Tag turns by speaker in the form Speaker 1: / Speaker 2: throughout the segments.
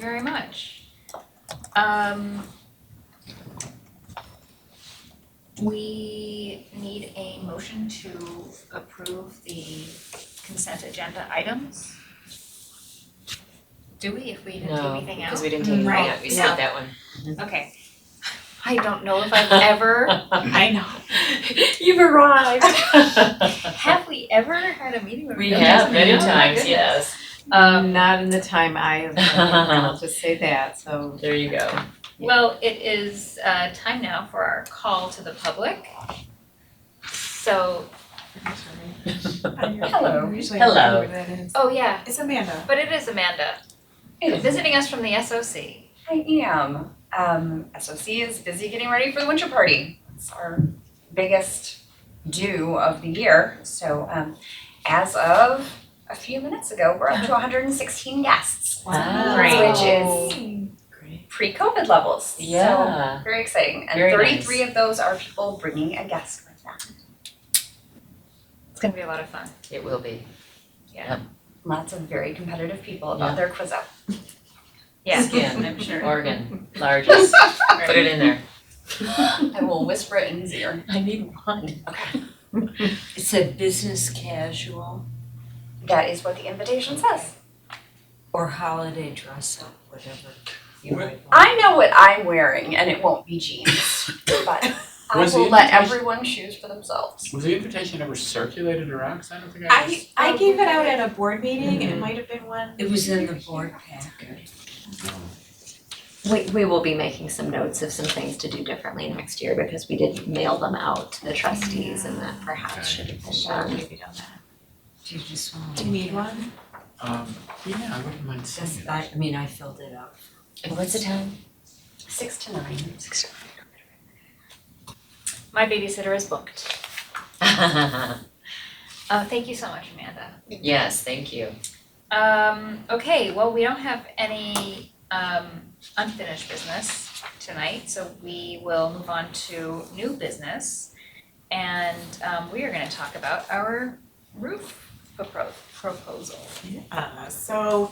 Speaker 1: very much. Um. We need a motion to approve the consent agenda items. Do we, if we didn't do
Speaker 2: No,
Speaker 1: anything
Speaker 2: because
Speaker 1: else?
Speaker 2: we didn't take anything
Speaker 1: Right.
Speaker 2: out, we skipped that one.
Speaker 1: Okay. I don't know if I've ever,
Speaker 2: I know.
Speaker 3: You've arrived.
Speaker 1: have we ever had a meeting where
Speaker 2: We
Speaker 1: no one's
Speaker 2: have many
Speaker 1: been- oh my
Speaker 2: times,
Speaker 1: goodness.
Speaker 2: yes,
Speaker 4: Um, not in the time I have, been here, I'll just say that, so.
Speaker 2: there you go.
Speaker 1: Well, it is uh time now for our call to the public. So, Hello.
Speaker 2: Hello.
Speaker 1: oh yeah,
Speaker 3: It's Amanda.
Speaker 1: but it is Amanda, visiting us from the SOC.
Speaker 5: I am. Um, SOC is busy getting ready for the winter party. It's our biggest do of the year. So um, as of a few minutes ago, we're up to 116 guests,
Speaker 2: Wow.
Speaker 5: which is
Speaker 2: Great.
Speaker 5: pre-COVID levels.
Speaker 2: Yeah,
Speaker 5: So very exciting. And
Speaker 2: Very
Speaker 5: 33 of those are people bringing a guest with them.
Speaker 1: It's gonna be a lot of fun.
Speaker 2: it will be.
Speaker 5: Lots of very competitive people about
Speaker 2: Yeah.
Speaker 5: their quiz up.
Speaker 1: Yeah,
Speaker 2: Skin.
Speaker 1: I'm sure.
Speaker 2: Oregon, largest, put it in there.
Speaker 5: I will whisper it in his ear.
Speaker 2: I need one.
Speaker 6: It said business casual
Speaker 5: That is what the invitation says.
Speaker 6: or holiday dress up, whatever you might want.
Speaker 5: I know what I'm wearing, and it won't be jeans, but I
Speaker 7: Was
Speaker 5: will
Speaker 7: the
Speaker 5: let
Speaker 7: invitation-
Speaker 5: everyone choose for themselves.
Speaker 7: Was the invitation ever circulated around? Because I don't think I
Speaker 3: I
Speaker 7: was.
Speaker 3: I gave it out at a board meeting and it might have been one.
Speaker 6: It was in the board packet.
Speaker 8: We, we will be making some notes of some things to do differently next year because we did mail them out to the trustees and that perhaps should have been done.
Speaker 6: Do you just want?
Speaker 3: Do you need one?
Speaker 7: Um, yeah, I wouldn't mind seeing
Speaker 6: That's,
Speaker 7: it.
Speaker 6: I, I mean, I filled it out.
Speaker 2: And what's the time?
Speaker 5: Six to nine.
Speaker 1: My babysitter is booked. Uh, thank you so much, Amanda.
Speaker 2: Yes, thank you.
Speaker 1: Um, okay, well, we don't have any um unfinished business tonight, so we will move on to new business. And um we are gonna talk about our roof propro- proposal.
Speaker 3: Uh, so,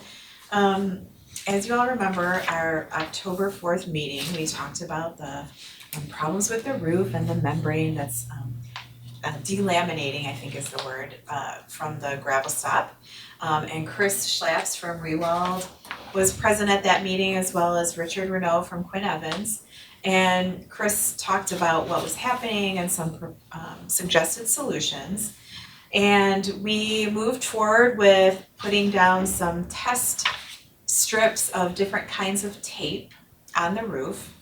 Speaker 3: um, as you all remember, our October fourth meeting, we talked about the um, problems with the roof and the membrane that's um uh, delaminating, I think is the word, uh, from the gravel stop. Um, and Chris Schlaps from Rewald was present at that meeting as well as Richard Renault from Quinn Evans. And Chris talked about what was happening and some um, suggested solutions. And we moved forward with putting down some test strips of different kinds of tape on the roof.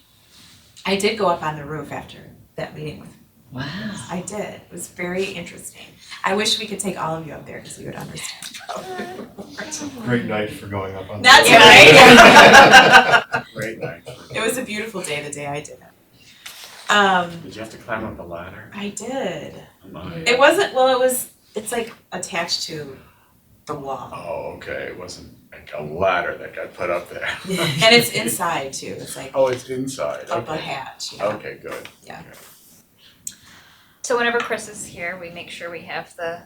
Speaker 3: I did go up on the roof after that meeting with,
Speaker 2: Wow.
Speaker 3: I did, it was very interesting. I wish we could take all of you up there because you would understand probably more.
Speaker 9: Great night for going up on. the-
Speaker 3: That's
Speaker 1: Yeah.
Speaker 3: right.
Speaker 9: Great night. for-
Speaker 3: It was a beautiful day, the day I did it. Um,
Speaker 7: Did you have to climb up a ladder?
Speaker 3: I did.
Speaker 7: Oh, my.
Speaker 3: It wasn't, well, it was, it's like attached to the wall.
Speaker 7: Oh, okay, it wasn't like a ladder that got put up there.
Speaker 3: And it's inside too, it's like
Speaker 7: Oh, it's inside,
Speaker 3: up a
Speaker 7: okay.
Speaker 3: hatch, you know.
Speaker 7: Okay, good.
Speaker 3: Yeah.
Speaker 7: Okay.
Speaker 1: So whenever Chris is here, we make sure we have the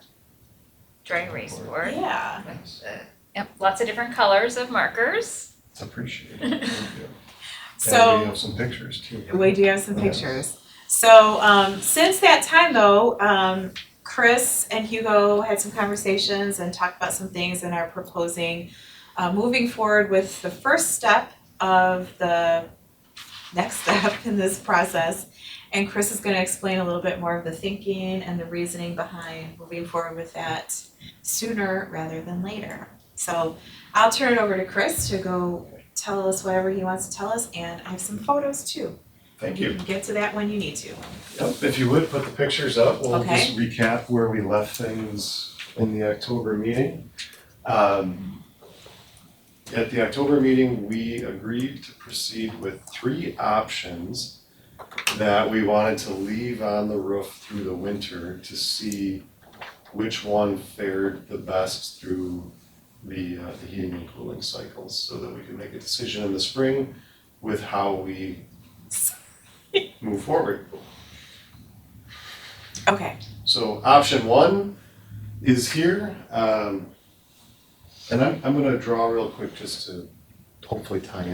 Speaker 1: dry erase board
Speaker 3: Yeah,
Speaker 1: with the, yep, lots of different colors of markers.
Speaker 9: It's appreciated, thank you. And we
Speaker 3: so
Speaker 9: have some pictures too.
Speaker 3: we do have some
Speaker 9: Yeah.
Speaker 3: pictures. So um since that time though, um Chris and Hugo had some conversations and talked about some things and are proposing uh moving forward with the first step of the next step in this process. And Chris is gonna explain a little bit more of the thinking and the reasoning behind moving forward with that sooner rather than later. So I'll turn it over to Chris to go tell us whatever he wants to tell us, and I have some photos too.
Speaker 9: Thank you.
Speaker 3: can get to that when you need to.
Speaker 9: Yep, if you would, put the pictures up, we'll
Speaker 3: Okay.
Speaker 9: just recap where we left things in the October meeting. Um, At the October meeting, we agreed to proceed with three options that we wanted to leave on the roof through the winter to see which one fared the best through the, uh, the heating and cooling cycles, so that we could make a decision in the spring with how we move forward.
Speaker 3: Okay,
Speaker 9: So option one is here, um, and I'm, I'm gonna draw real quick just to hopefully tie